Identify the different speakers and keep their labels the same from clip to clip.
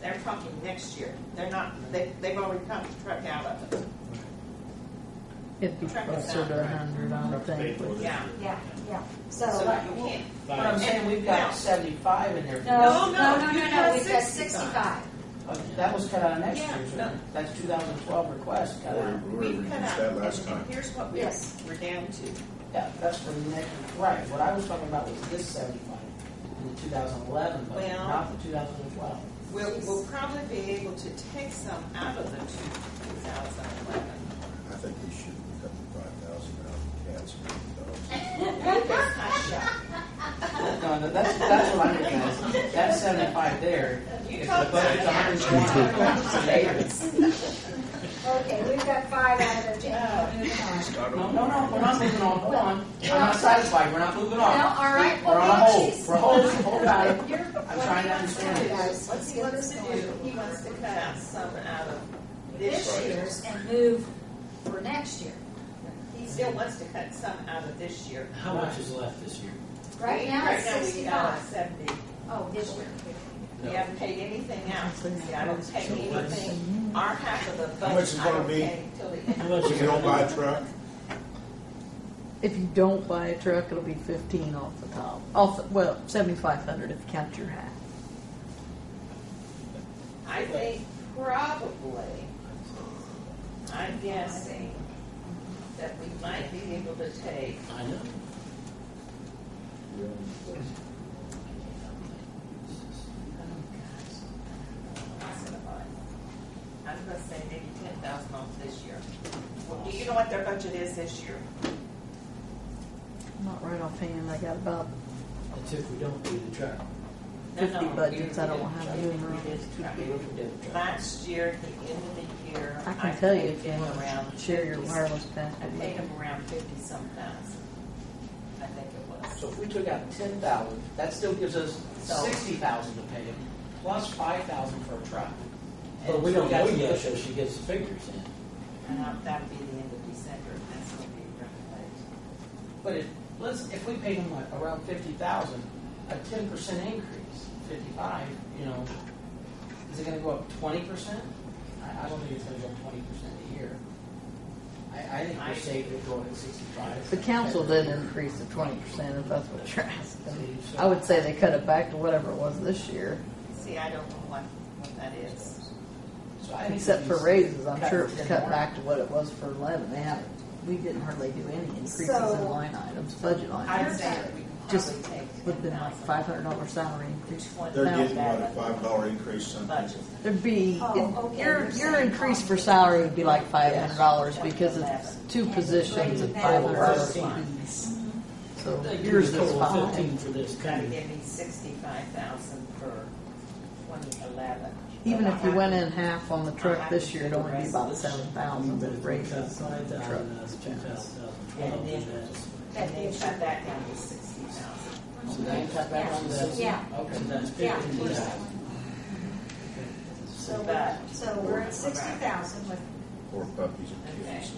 Speaker 1: They're talking next year. They're not, they, they've already contracted out of it.
Speaker 2: It'd be closer to a hundred, I would think. but-
Speaker 1: Yeah.
Speaker 3: Yeah, yeah. So,
Speaker 1: So
Speaker 3: like,
Speaker 1: you can't.
Speaker 4: But I'm saying we've got seventy-five in there. for this.
Speaker 3: no,
Speaker 1: No,
Speaker 3: no,
Speaker 1: no,
Speaker 3: no,
Speaker 1: you
Speaker 3: no, no,
Speaker 1: got
Speaker 3: we've got
Speaker 1: 65.
Speaker 3: sixty-five.
Speaker 4: Uh, That was cut out of next
Speaker 1: Yeah,
Speaker 4: year's,
Speaker 1: no.
Speaker 4: wasn't it? that's two thousand twelve request cut out.
Speaker 1: We
Speaker 5: Lori reduced
Speaker 1: cut out,
Speaker 5: that last
Speaker 1: and
Speaker 5: time.
Speaker 1: Here's what we're,
Speaker 3: Yes.
Speaker 1: we're down to.
Speaker 4: Yeah, that's for the next, right, what I was talking about was this seventy-five, the two thousand eleven, but
Speaker 1: Well-
Speaker 4: not the two thousand and twelve.
Speaker 1: We'll, we'll probably be able to take some out of the two thousand eleven.
Speaker 5: I think we should cut the five thousand out of the cats. and
Speaker 4: No, no, that's, that's what I'm realizing, that's seventy-five there.
Speaker 1: You
Speaker 4: If the
Speaker 1: talked
Speaker 4: budget's a
Speaker 1: about
Speaker 4: hundred and twenty.
Speaker 3: Okay, we've got five out of the ten, moving on.
Speaker 5: dogs.
Speaker 4: No, no, no, we're not moving on, hold on, I'm not satisfied, we're not moving on.
Speaker 3: No, all right,
Speaker 4: We're on a
Speaker 3: well,
Speaker 4: hold,
Speaker 3: geez.
Speaker 4: we're holding, hold on.
Speaker 3: You're-
Speaker 4: I'm trying to understand
Speaker 3: Guys,
Speaker 4: this.
Speaker 1: What's
Speaker 3: Let's
Speaker 1: he
Speaker 3: get
Speaker 1: wants
Speaker 3: this
Speaker 1: to
Speaker 3: going.
Speaker 1: do, he wants to cut out some out of this
Speaker 3: This
Speaker 1: year.
Speaker 3: year's and move for next year.
Speaker 1: He still wants to cut some out of this year.
Speaker 6: How much is left this year?
Speaker 3: Right now, it's
Speaker 1: we got
Speaker 3: sixty-five.
Speaker 1: Seventy.
Speaker 3: Oh, this year.
Speaker 1: We haven't paid anything out. See, I don't pay
Speaker 6: So what's-
Speaker 1: anything, our half of the budget.
Speaker 5: How much is
Speaker 1: I
Speaker 5: gonna
Speaker 1: don't
Speaker 5: be?
Speaker 1: pay Till the end.
Speaker 6: How much
Speaker 5: If
Speaker 6: is
Speaker 5: you don't buy
Speaker 6: left?
Speaker 5: a truck,
Speaker 2: If you don't buy a truck, it'll be fifteen off the top, off, the- well, seventy-five hundred if you count your half.
Speaker 1: I think probably, I'm guessing that we might be able to take
Speaker 6: I know.
Speaker 1: I'm gonna say maybe ten thousand off this year. Well, do you know what their budget is this year?
Speaker 2: Not right offhand, I got about
Speaker 6: That's if we don't do the truck.
Speaker 1: No, no,
Speaker 2: fifty
Speaker 1: we
Speaker 2: budgets, I
Speaker 1: did-
Speaker 2: don't have
Speaker 1: we
Speaker 2: any
Speaker 1: did-
Speaker 2: room.
Speaker 1: we did try.
Speaker 4: We look at the truck.
Speaker 1: Last year, at the end of the year.
Speaker 2: I can tell you
Speaker 1: paid
Speaker 2: if you
Speaker 1: them
Speaker 2: want
Speaker 1: around
Speaker 2: to share your
Speaker 1: 50
Speaker 2: wireless
Speaker 1: I
Speaker 2: password.
Speaker 1: paid them around fifty some thousand, I think it was.
Speaker 4: So if we took out ten thousand, that still gives us sixty thousand to pay, plus five thousand for a truck. And
Speaker 6: But we
Speaker 4: if
Speaker 6: don't
Speaker 4: got
Speaker 6: know
Speaker 4: to
Speaker 6: yet,
Speaker 4: look
Speaker 6: so
Speaker 4: at-
Speaker 6: she gives the figures in.
Speaker 1: And I- that'd be the end of December, and that's gonna be revealed.
Speaker 4: But if, let's, if we paid them like around fifty thousand, a ten percent increase, fifty-five, you know, is it gonna go up twenty percent? I, I don't think it's gonna go up twenty percent a year. I, I think
Speaker 1: I-
Speaker 4: we're safe with going at sixty-five.
Speaker 2: The council did increase the twenty percent, if that's what you're asking. I would say they cut it back to whatever it was this year,
Speaker 1: See, I don't know what, what that is.
Speaker 4: So I think we
Speaker 2: except for
Speaker 4: just
Speaker 2: raises, I'm
Speaker 4: cut
Speaker 2: sure it was
Speaker 4: within
Speaker 2: cut
Speaker 4: one.
Speaker 2: back to what it was for eleven. They haven't, we didn't hardly do any increases in
Speaker 3: So-
Speaker 2: line items, budget line
Speaker 1: I'd
Speaker 2: items.
Speaker 1: say that we can
Speaker 2: Just
Speaker 1: probably take.
Speaker 2: Would've been like five hundred dollar salary increase.
Speaker 5: they're
Speaker 2: No.
Speaker 5: getting what, a five dollar increase something?
Speaker 1: Budget.
Speaker 2: There'd be,
Speaker 3: Oh, okay,
Speaker 2: your,
Speaker 3: you're
Speaker 2: your
Speaker 3: saying
Speaker 2: increase for
Speaker 3: comp.
Speaker 2: salary would be like five hundred dollars
Speaker 1: Yes.
Speaker 2: because it's two
Speaker 3: And
Speaker 2: positions at
Speaker 3: three
Speaker 2: five hundred dollars
Speaker 4: thousand.
Speaker 2: apiece. So
Speaker 6: They give
Speaker 2: yours
Speaker 6: us a
Speaker 2: is
Speaker 6: total of
Speaker 2: five.
Speaker 6: Fifteen for this
Speaker 1: That'd
Speaker 6: coming.
Speaker 1: give me sixty-five thousand for twenty eleven.
Speaker 2: Even if you went in half on the truck this year, it'd only be about seven thousand, but it raises on
Speaker 6: Five
Speaker 2: the truck.
Speaker 6: thousand, that's two thousand,
Speaker 1: And
Speaker 6: uh, twelve,
Speaker 1: then-
Speaker 6: and that's,
Speaker 1: And then cut that down to sixty thousand.
Speaker 4: So they cut back on the.
Speaker 3: Yeah.
Speaker 6: so
Speaker 4: Okay.
Speaker 6: that's
Speaker 3: Yeah.
Speaker 6: fifteen thousand.
Speaker 3: So we're, so we're at sixty thousand with,
Speaker 5: Or puppies and kids.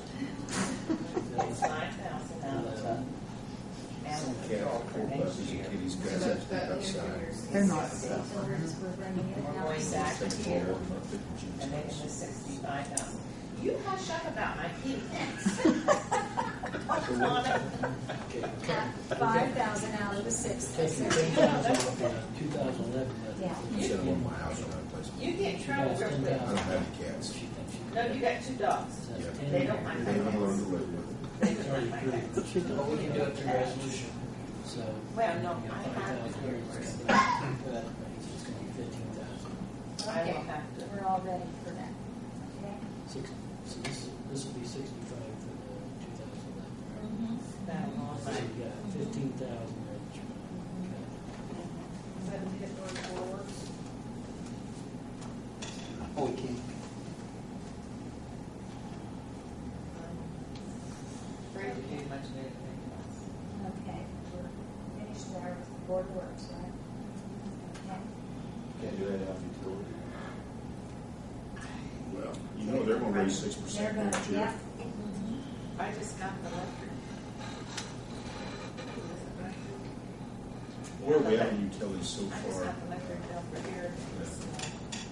Speaker 1: That's five thousand out of the animal control
Speaker 5: Cat,
Speaker 1: for
Speaker 5: poor
Speaker 1: next
Speaker 5: puppies
Speaker 1: year.
Speaker 5: and kitties, guys, that's the upside.
Speaker 2: They're not
Speaker 3: so
Speaker 2: stuff.
Speaker 3: we're, we're running it
Speaker 1: We're
Speaker 3: now.
Speaker 1: going back
Speaker 5: Take
Speaker 1: to
Speaker 5: four,
Speaker 1: here
Speaker 5: not fifty Jim's
Speaker 1: and making
Speaker 5: house.
Speaker 1: the sixty-five thousand. You hush up about my kids.
Speaker 5: So what-
Speaker 3: Five thousand out of the sixty.
Speaker 6: Taking ten thousand off the two thousand eleven budget.
Speaker 3: Yeah.
Speaker 5: I said I'm on my house when I place.
Speaker 1: You get in trouble real quick.
Speaker 5: I don't have any cats.
Speaker 6: She thinks she.
Speaker 1: No, you got two dogs.
Speaker 6: So that's
Speaker 5: Yeah.
Speaker 6: ten
Speaker 1: They don't mind.
Speaker 5: They haven't learned to live with it.
Speaker 1: They
Speaker 6: It's
Speaker 1: do
Speaker 6: already
Speaker 1: not like
Speaker 6: pretty.
Speaker 1: that.
Speaker 4: But we can do it through resolution.
Speaker 6: So.
Speaker 1: Well, no,
Speaker 6: you know,
Speaker 1: I
Speaker 6: five
Speaker 1: have
Speaker 6: thousand
Speaker 1: to.
Speaker 6: here is gonna be- but It's gonna be fifteen thousand.
Speaker 1: I will
Speaker 3: Okay,
Speaker 1: have to.
Speaker 3: we're all ready for that. Okay.
Speaker 6: Six, so this, this will be sixty-five for the two thousand eleven.
Speaker 1: That long
Speaker 6: So
Speaker 1: line.
Speaker 6: you got fifteen thousand right?
Speaker 4: Oh, we can.
Speaker 1: Afraid to do much of anything else.
Speaker 3: Okay, we're finished there with the board works, right? Okay.
Speaker 7: Can't do that on utility.
Speaker 5: Well, you know, they're gonna raise six
Speaker 3: They're
Speaker 5: percent
Speaker 3: gonna,
Speaker 5: next year.
Speaker 3: yeah,
Speaker 1: I just got the letter.
Speaker 5: Where are we at in utilities so
Speaker 1: I just
Speaker 5: far?
Speaker 1: got the letter bill for here. It's, uh,